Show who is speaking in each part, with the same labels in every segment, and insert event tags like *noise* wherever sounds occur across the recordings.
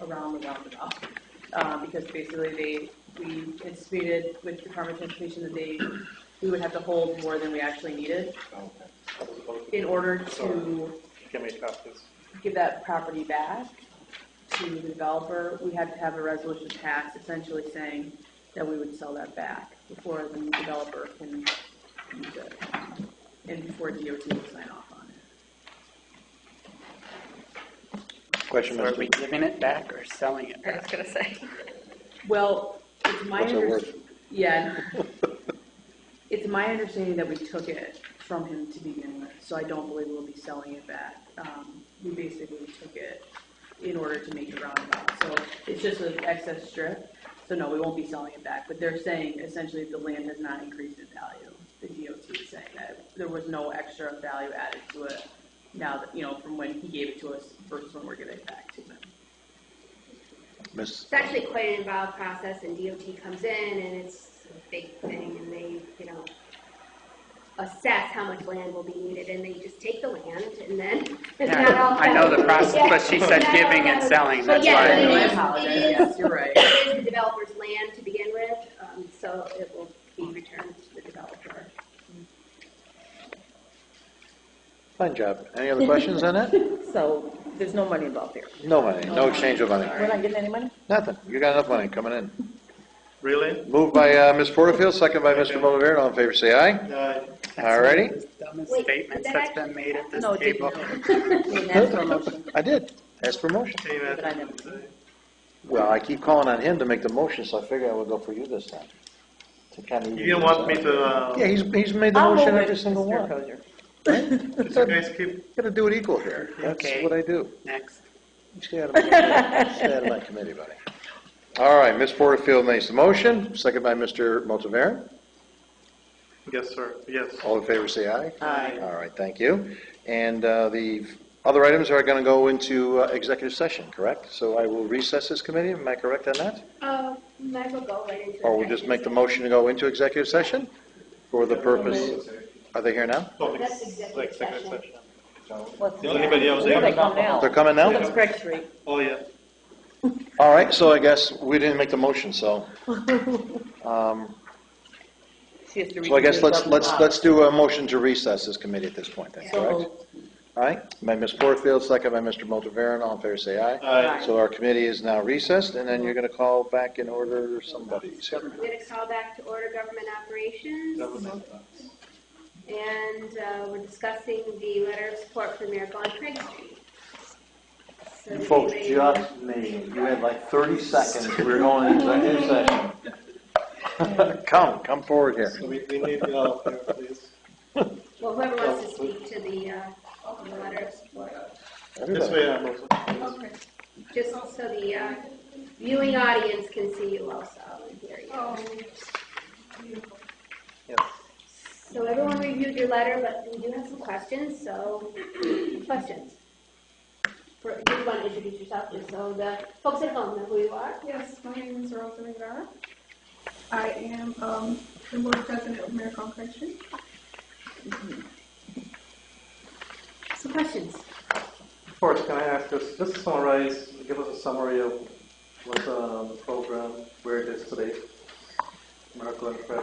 Speaker 1: around the roundabout. Um, because basically they, we anticipated with Department of Transportation that they, we would have to hold more than we actually needed in order to
Speaker 2: Give me copies.
Speaker 1: give that property back to the developer, we had to have a resolution passed essentially saying that we would sell that back before the developer can use it. And before DOT would sign off on it.
Speaker 3: Question,
Speaker 4: So are we
Speaker 3: Mr.
Speaker 4: giving it back or selling it
Speaker 5: I was
Speaker 4: back?
Speaker 5: gonna say.
Speaker 1: Well, it's my
Speaker 3: What's it
Speaker 1: under,
Speaker 3: worth?
Speaker 1: yeah. It's my understanding that we took it from him to begin with, so I don't believe we'll be selling it back. Um, we basically took it in order to make the roundabout, so it's just an excess strip. So no, we won't be selling it back, but they're saying essentially the land has not increased in value. The DOT is saying that there was no extra value added to it now that, you know, from when he gave it to us versus when we're giving it back to him.
Speaker 3: Miss,
Speaker 5: It's actually quite an involved process and DOT comes in and it's a big thing and they, you know, assess how much land will be needed and they just take the land and then *laughs* it's not
Speaker 4: Yeah,
Speaker 5: all.
Speaker 4: I know the process,
Speaker 5: Yeah.
Speaker 4: but she said
Speaker 5: Not all
Speaker 4: giving and
Speaker 5: done.
Speaker 4: selling,
Speaker 5: Well,
Speaker 4: that's
Speaker 5: yeah,
Speaker 4: why. I
Speaker 5: but it
Speaker 1: I
Speaker 5: is-
Speaker 4: knew it.
Speaker 1: apologize,
Speaker 5: it is-
Speaker 1: yes, you're right.
Speaker 5: It is the developer's land to begin with, um, so it will be returned to the developer.
Speaker 3: fine job. Any other questions on that?
Speaker 6: So there's no money involved here.
Speaker 3: No money, no exchange of money.
Speaker 6: We're not getting any money?
Speaker 3: Nothing. You got enough money coming in.
Speaker 2: Really?
Speaker 3: Moved by uh, Ms. Porterfield, second by Mr. Bonnevier. All in favor, say aye.
Speaker 2: Uh,
Speaker 3: All righty.
Speaker 4: That's the dumbest
Speaker 5: Wait,
Speaker 4: statements
Speaker 5: did
Speaker 4: that's
Speaker 5: that-
Speaker 4: been made at this
Speaker 6: No, it didn't. *laughs*
Speaker 4: table.
Speaker 6: We didn't ask for a motion.
Speaker 3: I did. Ask for motion.
Speaker 2: Dave
Speaker 6: But I
Speaker 2: Atkinson.
Speaker 6: never-
Speaker 3: Well, I keep calling on him to make the motion, so I figure I would go for you this time. To kind of.
Speaker 2: You didn't want me to, uh,
Speaker 3: Yeah, he's, he's made the
Speaker 6: I'll
Speaker 3: motion
Speaker 6: move it,
Speaker 3: every single
Speaker 6: Mr.
Speaker 3: one.
Speaker 6: Kozier.
Speaker 2: did you guys keep,
Speaker 3: Gotta do it equal here. That's
Speaker 4: Okay.
Speaker 3: what I do.
Speaker 4: Next.
Speaker 3: Stay out of my committee. Stay out of my committee, buddy. All right, Ms. Porterfield makes the motion, second by Mr. Motivaren.
Speaker 2: yes, sir, yes.
Speaker 3: All in favor, say aye.
Speaker 6: Aye.
Speaker 3: All right, thank you. And uh, the other items are going to go into uh, executive session, correct? So I will recess this committee, am I correct on that?
Speaker 5: Uh, might as well go right into.
Speaker 3: Or we'll just make the motion to go into executive session for the purpose, are they here now?
Speaker 2: Public
Speaker 5: That's
Speaker 2: s-
Speaker 5: executive
Speaker 2: like second
Speaker 5: session.
Speaker 2: session.
Speaker 6: What's-
Speaker 2: Does anybody else
Speaker 6: Where they
Speaker 2: have-
Speaker 6: come now?
Speaker 3: They're coming
Speaker 6: It's
Speaker 3: now?
Speaker 6: Craig Street.
Speaker 2: Oh, yeah.
Speaker 3: All right, so I guess we didn't make the motion, so. um,
Speaker 6: She has to
Speaker 3: So I guess
Speaker 6: recuse
Speaker 3: let's,
Speaker 6: herself.
Speaker 3: let's, let's do a motion to recess this committee at this point, then,
Speaker 6: So
Speaker 3: correct?
Speaker 6: moved.
Speaker 3: All right, by Ms. Porterfield, second by Mr. Motivaren, all in favor, say aye.
Speaker 2: Uh,
Speaker 3: So our committee is now recessed, and then you're going to call back in order somebody's here.
Speaker 5: I'm gonna call back to order government operations.
Speaker 2: government.
Speaker 5: And uh, we're discussing the letter of support for Miracle on Craig Street. So does
Speaker 3: Folks,
Speaker 5: anybody-
Speaker 3: just me, you had like 30 seconds, we were going into executive session. *laughs* Come, come forward here.
Speaker 2: So we, we need, uh, here, please.
Speaker 5: Well, whoever wants to speak to the, uh, the letter of support.
Speaker 2: This
Speaker 3: Everybody.
Speaker 2: way, I'm also.
Speaker 5: Just so the uh, viewing audience can see you also and hear
Speaker 7: Oh,
Speaker 5: you.
Speaker 2: Yes.
Speaker 5: So everyone reviewed your letter, but we do have some questions, so, questions? For, do you want to introduce yourself, just so the folks at home know who you are?
Speaker 7: Yes, my name is Rosa Rivera. I am um, the board president of Miracle Christian.
Speaker 5: Some questions?
Speaker 2: First, can I ask us, just summarize, give us a summary of what, uh, the program, where it is today? Miracle and Prayer.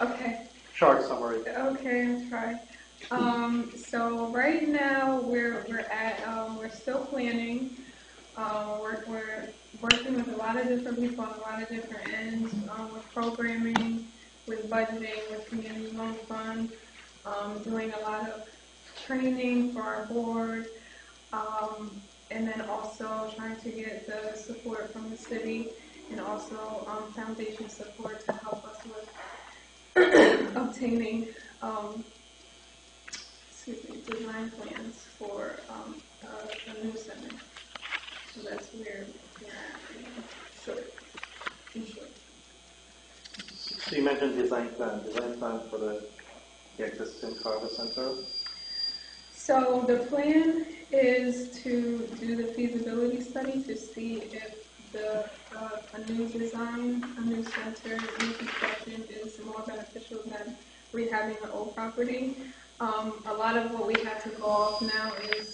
Speaker 7: Okay,
Speaker 2: Short summary.
Speaker 7: okay, I'll try. Um, so right now we're we're at um, we're still planning. Uh, we're, we're working with a lot of different people on a lot of different ends um, with programming, with budgeting, with community loan fund, um, doing a lot of training for our board, um, and then also trying to get the support from the city and also um, foundation support to help us with *coughs* obtaining um, excuse me, design plans for um, a, a new center. So that's where we're at. Short. In short.
Speaker 2: So you mentioned design plan, design plan for the the existing Carver Center.
Speaker 7: So the plan is to do the feasibility study to see if the, uh, a new design, a new center, new construction is more beneficial than rehabbing the old property. Um, a lot of what we have to go off now is